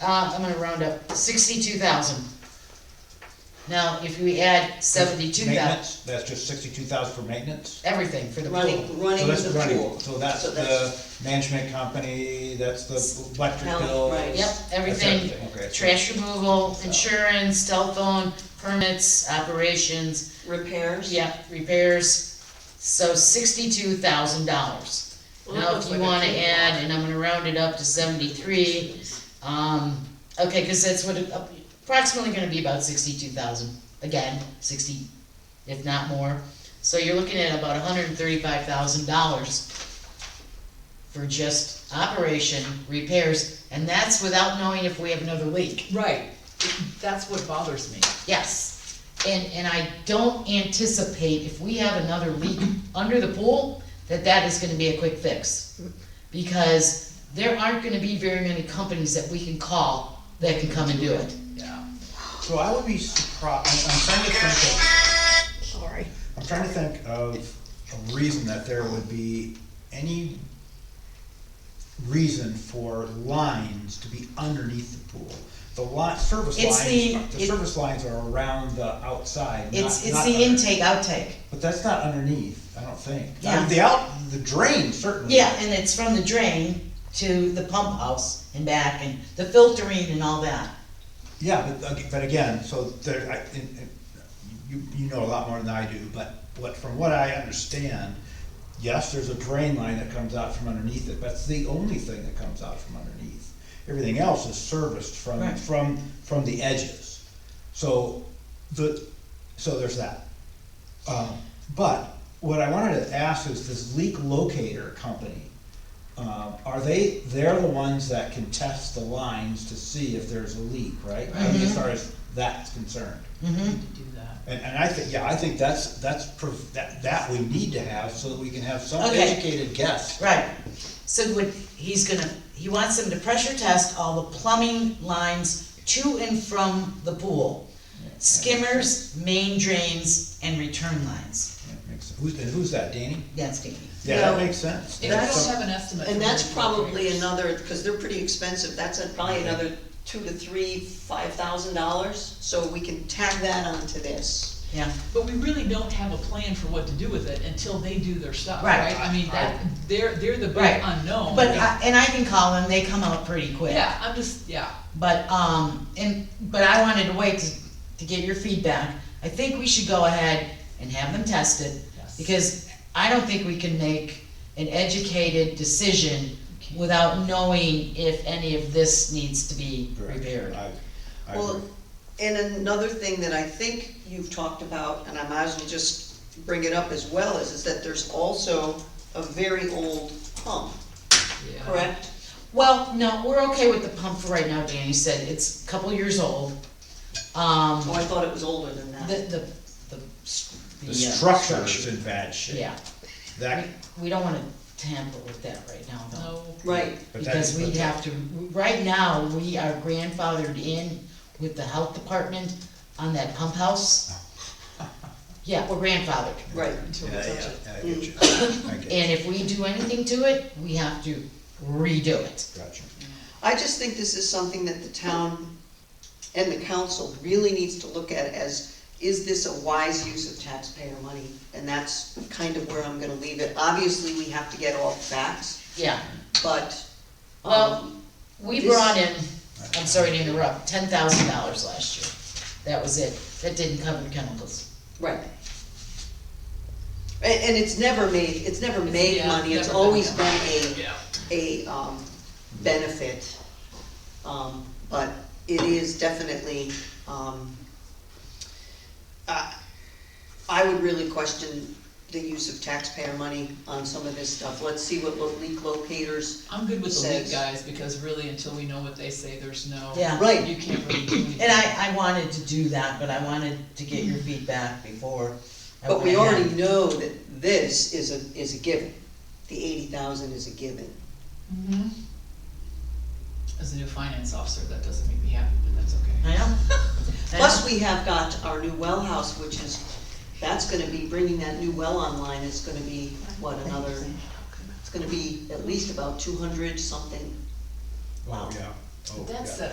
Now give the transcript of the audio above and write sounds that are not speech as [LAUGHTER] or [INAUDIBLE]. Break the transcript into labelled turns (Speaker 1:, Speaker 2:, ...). Speaker 1: uh, I'm gonna round up, sixty-two thousand. Now, if we add seventy-two thousand,
Speaker 2: Maintenance, that's just sixty-two thousand for maintenance?
Speaker 1: everything for the pool.
Speaker 3: running, running
Speaker 2: So that's
Speaker 3: the
Speaker 2: running.
Speaker 3: pool.
Speaker 2: So that's
Speaker 3: So
Speaker 2: the management company, that's the electric
Speaker 3: Hell,
Speaker 2: bill.
Speaker 3: right.
Speaker 1: Yep, everything,
Speaker 2: everything, okay, so-
Speaker 1: trash removal, insurance, telephone, permits, operations,
Speaker 3: Repairs?
Speaker 1: yep, repairs. So sixty-two thousand dollars.
Speaker 3: Well, that
Speaker 1: Now,
Speaker 3: looks
Speaker 1: if you
Speaker 3: like a
Speaker 1: wanna
Speaker 3: big lot.
Speaker 1: add, and I'm gonna round it up to seventy-three, Um, okay, cause that's what, it- uh, approximately gonna be about sixty-two thousand, again, sixty, if not more. So you're looking at about hundred and thirty-five thousand dollars for just operation, repairs, and that's without knowing if we have another leak.
Speaker 4: Right, that's what bothers me.
Speaker 1: Yes, and, and I don't anticipate if we have another leak under the pool, that that is gonna be a quick fix. Because there aren't gonna be very many companies that we can call that can come and do it.
Speaker 4: Yeah.
Speaker 2: So I would be surprised, I'm trying to think of.
Speaker 5: Sorry.
Speaker 2: I'm trying to think of a reason that there would be any reason for lines to be underneath the pool. The line, service
Speaker 5: It's the-
Speaker 2: lines, the
Speaker 5: it-
Speaker 2: service lines are around the outside, not,
Speaker 5: It's, it's
Speaker 2: not
Speaker 5: the
Speaker 2: under-
Speaker 5: intake, outtake.
Speaker 2: But that's not underneath, I don't think. I mean,
Speaker 5: Yeah.
Speaker 2: The out, the drain certainly.
Speaker 5: Yeah, and it's from the drain to the pump house and back and the filtering and all that.
Speaker 2: Yeah, but, ag- but again, so there, I, and- and you, you know a lot more than I do, but what, from what I understand, yes, there's a drain line that comes out from underneath it, but it's the only thing that comes out from underneath. Everything else is serviced from,
Speaker 5: Right.
Speaker 2: from, from the edges. So, the, so there's that. Um, but what I wanted to ask is this leak locator company, um, are they, they're the ones that can test the lines to see if there's a leak, right? I mean, As far as that's concerned.
Speaker 4: Need to do that.
Speaker 2: And, and I think, yeah, I think that's, that's, prov- that, that we need to have so that we can have some
Speaker 1: Okay.
Speaker 2: educated guess.
Speaker 5: Right,
Speaker 1: So what, he's gonna, he wants them to pressure test all the plumbing lines to and from the pool. Skimmers, main drains, and return lines.
Speaker 2: Yeah, makes sense. Who's, and who's that, Danny?
Speaker 1: That's Danny.
Speaker 2: Yeah, that
Speaker 3: No.
Speaker 2: makes sense.
Speaker 4: And I
Speaker 2: That's
Speaker 4: don't
Speaker 2: some-
Speaker 4: have an estimate.
Speaker 3: And
Speaker 4: for
Speaker 3: that's
Speaker 4: the
Speaker 3: probably
Speaker 4: repairs.
Speaker 3: another, because they're pretty expensive, that's a- probably another two to three, five thousand dollars, so we can tag that onto this.
Speaker 1: Yeah.
Speaker 4: But we really don't have a plan for what to do with it until they do their stuff,
Speaker 1: Right.
Speaker 4: right? I mean, that, they're, they're the big
Speaker 1: Right.
Speaker 4: unknown.
Speaker 1: But, I- and I can call them, they come out pretty quick.
Speaker 4: Oh Yeah, I'm just, yeah,
Speaker 1: But, um, and, but I wanted to wait to, to get your feedback. I think we should go ahead and have them tested,
Speaker 4: Yes.
Speaker 1: because I don't think we can make an educated decision without knowing if any of this needs to be
Speaker 2: Correct.
Speaker 1: repaired.
Speaker 2: I- I
Speaker 3: Well,
Speaker 2: agree.
Speaker 3: and another thing that I think you've talked about, and I might as well just bring it up as well, is, is that there's also a very old pump,
Speaker 4: yeah.
Speaker 3: correct?
Speaker 1: Well, no, we're okay with the pump for right now, Danny said, it's a couple years old. Um,
Speaker 3: Oh, I thought it was older than
Speaker 1: the,
Speaker 3: that.
Speaker 1: the, the. s-
Speaker 2: The
Speaker 1: uh,
Speaker 2: structure is in bad shape.
Speaker 1: Yeah,
Speaker 2: That,
Speaker 1: we, we don't wanna tamper with that right now, though.
Speaker 4: No,
Speaker 3: Right,
Speaker 2: but that-
Speaker 1: Because we
Speaker 2: but-
Speaker 1: have to, right now, we are grandfathered in with the health department on that pump house.
Speaker 3: [LAUGHS]
Speaker 1: Yeah, we're grandfathered,
Speaker 3: right.
Speaker 4: until we
Speaker 2: Yeah,
Speaker 4: touch
Speaker 2: yeah,
Speaker 4: it.
Speaker 2: I get you. I get you.
Speaker 1: and if we do anything to it, we have to redo it.
Speaker 2: Gotcha.
Speaker 3: I just think this is something that the town and the council really needs to look at as, is this a wise use of taxpayer money? And that's kind of where I'm gonna leave it. Obviously, we have to get all the facts,
Speaker 1: Yeah,
Speaker 3: but,
Speaker 1: Well-
Speaker 3: um,
Speaker 1: we brought in, I'm sorry to interrupt, ten thousand dollars last year. That was it, that didn't cover the chemicals.
Speaker 3: right. And, and it's never made, it's never made
Speaker 4: yeah,
Speaker 3: money, it's
Speaker 4: never been
Speaker 3: always
Speaker 4: done.
Speaker 3: been
Speaker 4: Yeah.
Speaker 3: a, a, um, benefit. Um, but it is definitely, um, I I would really question the use of taxpayer money on some of this stuff. Let's see what lo- leak locators,
Speaker 4: I'm good with the league
Speaker 3: Says-
Speaker 4: guys, because really, until we know what they say, there's no.
Speaker 1: Yeah.
Speaker 3: Right.
Speaker 4: You can't really do anything.
Speaker 5: and I, I wanted to do that, but I wanted to get your feedback before. I
Speaker 3: but we
Speaker 5: went ahead.
Speaker 3: already know that this is a, is a given. The eighty thousand is a given.
Speaker 4: Mhm. As a new finance officer, that doesn't make me happy, but that's okay.
Speaker 5: I
Speaker 3: [LAUGHS]
Speaker 5: know. [LAUGHS]
Speaker 3: Plus, we have got our new well house, which is, that's gonna be, bringing that new well online is gonna be, what, another, it's gonna be at least about two hundred something
Speaker 5: Wow.
Speaker 2: Yeah. Oh,
Speaker 4: But that's
Speaker 2: yeah.
Speaker 4: the